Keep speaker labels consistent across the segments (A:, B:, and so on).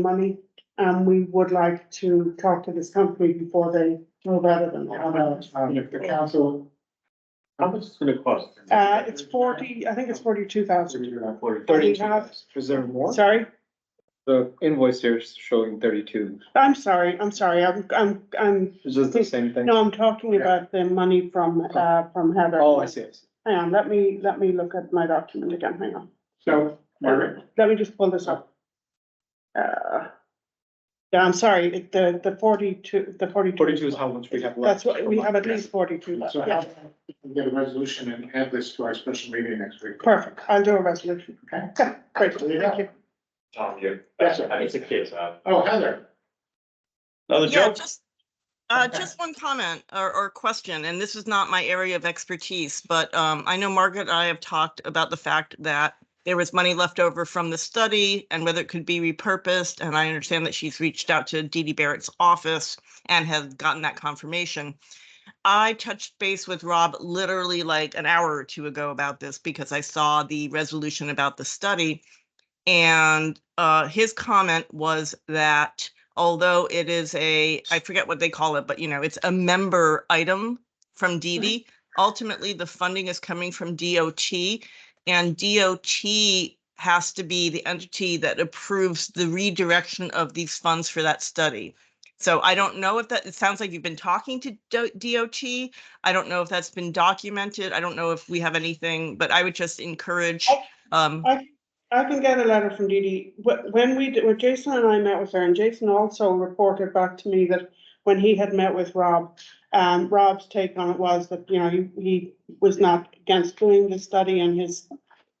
A: money, and we would like to talk to this company before they move out of them.
B: How much, um, if the council, how much is it gonna cost?
A: Uh, it's forty, I think it's forty-two thousand,
B: Thirty. Is there more?
A: sorry,
C: The invoice here is showing thirty-two,
A: I'm sorry, I'm sorry, I'm, I'm, I'm,
C: is this the same thing?
A: no, I'm talking about the money from, uh, from Heather.
C: Oh, I see, I see.
A: Hang on, let me, let me look at my document again, hang on,
B: So, Margaret,
A: let me just pull this up. Uh, yeah, I'm sorry, it- the, the forty-two, the forty-two.
C: Forty-two is how much we have
A: That's
C: left.
A: what, we have at least forty-two left,
B: so
A: yeah,
B: how, we can get a resolution and add this to our special meeting next week.
A: perfect, I'll do a resolution, okay, great, thank you.
D: Tom, you.
B: Yes, sir.
D: I need to kiss out.
B: Oh, Heather,
D: Another
E: Yeah, just, uh, just one comment or, or question, and this is not my area of expertise, but, um, I know Margaret and I have talked about the fact that there was money left over from the study and whether it could be repurposed, and I understand that she's reached out to Dee Dee Barrett's office and has gotten that confirmation. I touched base with Rob literally like an hour or two ago about this because I saw the resolution about the study. And, uh, his comment was that although it is a, I forget what they call it, but you know, it's a member item from DD. Ultimately, the funding is coming from DOT and DOT has to be the entity that approves the redirection of these funds for that study. So I don't know if that, it sounds like you've been talking to Do- DOT. I don't know if that's been documented. I don't know if we have anything, but I would just encourage, um,
A: I can get a letter from Dee Dee. Wh- When we, did- when Jason and I met with her, and Jason also reported back to me that when he had met with Rob, um, Rob's take on it was that, you know, he, he was not against doing the study and his,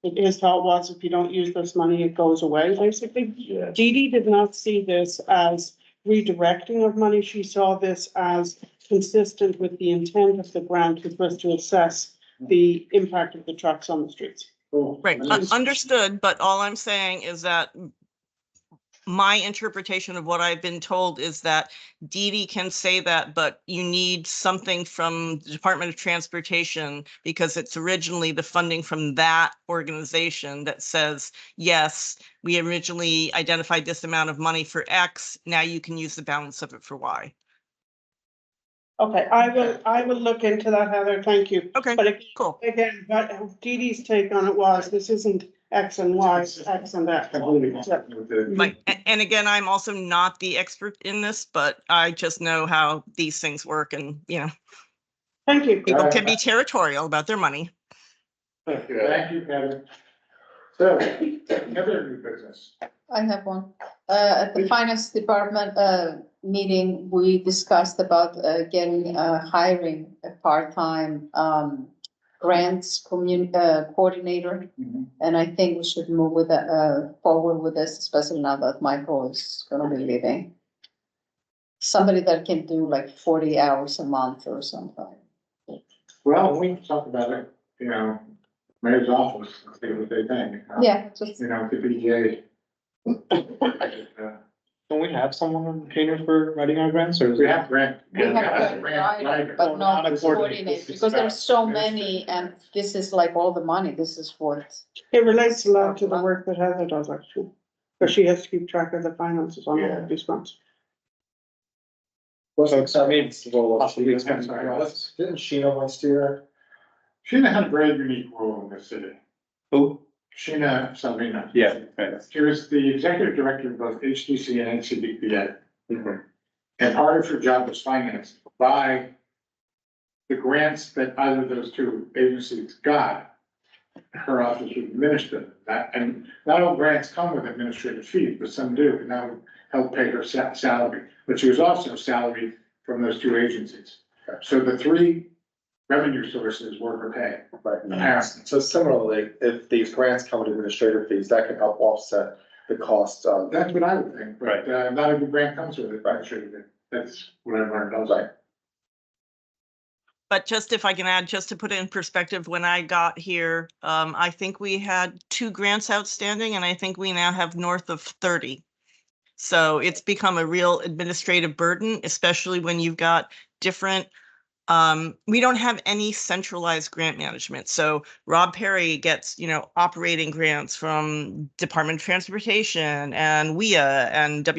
A: his thought was if you don't use this money, it goes away, basically.
D: Yeah.
A: Dee Dee did not see this as redirecting of money. She saw this as consistent with the intent of the grant, which was to assess the impact of the trucks on the streets.
B: Oh,
E: Right,
B: I
E: un-
B: just-
E: understood, but all I'm saying is that my interpretation of what I've been told is that Dee Dee can say that, but you need something from the Department of Transportation because it's originally the funding from that organization that says, yes, we originally identified this amount of money for X, now you can use the balance of it for Y.
A: Okay, I will, I will look into that, Heather, thank you.
E: Okay,
A: But ag-
E: cool.
A: again, but Dee Dee's take on it was, this isn't X and Y, it's X and
B: That's
A: that.
B: completely consistent with the-
A: Mm-hmm.
E: Like, a- and again, I'm also not the expert in this, but I just know how these things work and, you know,
A: Thank you.
E: people can be territorial about their money.
B: Thank you, Heather. So, Heather, new business.
F: I have one. Uh, at the finance department, uh, meeting, we discussed about, uh, getting, uh, hiring a part-time, um, grants commun, uh, coordinator.
B: Mhm.
F: And I think we should move with, that, uh, forward with this, especially now that Michael is gonna be leaving. Somebody that can do like forty hours a month or something.
B: Well, we can talk about it, you know, mayor's office, and see what they think. huh?
F: Yeah, just,
B: You know, the Uh, BJ.
C: Don't we have someone on retainer for writing our grants or? is
B: We
C: it-
B: have grant.
F: we have a writer, but
C: Not a coordinator.
F: not coordinator, because there are so many, and this is like all the money, this is what.
A: It relates a lot to the work that Heather does, actually, because she has to keep track of the finances on all of these funds.
C: So it's- I mean, it's a roll up.
B: Possibly, I'm sorry, let's-
C: Didn't Sheena last year?
B: Sheena had a very unique role in this city.
C: Who?
B: Sheena Salvina.
C: Yeah, right.
B: She was the executive director of both HTC and NCDPA.
G: Mm-hmm.
C: Mhm.
B: And part of her job was financed by the grants that either of those two agencies got. Her office would administer that, and not all grants come with administrative fees, but some do, and that would help pay her sa- salary. But she was also salaried from those two agencies. So the three revenue sources were her pay.
G: Right.
C: Mm-hmm.
B: Apparently.
G: So similarly, if these grants come with administrative fees, that can help offset the cost of.
B: That's what I would think, but uh, not every grant comes with it, but sure, that's what I learned, I was like.
E: But just if I can add, just to put it in perspective, when I got here, um, I think we had two grants outstanding and I think we now have north of thirty. So it's become a real administrative burden, especially when you've got different Um, we don't have any centralized grant management. So Rob Perry gets, you know, operating grants from Department of Transportation E and WIA and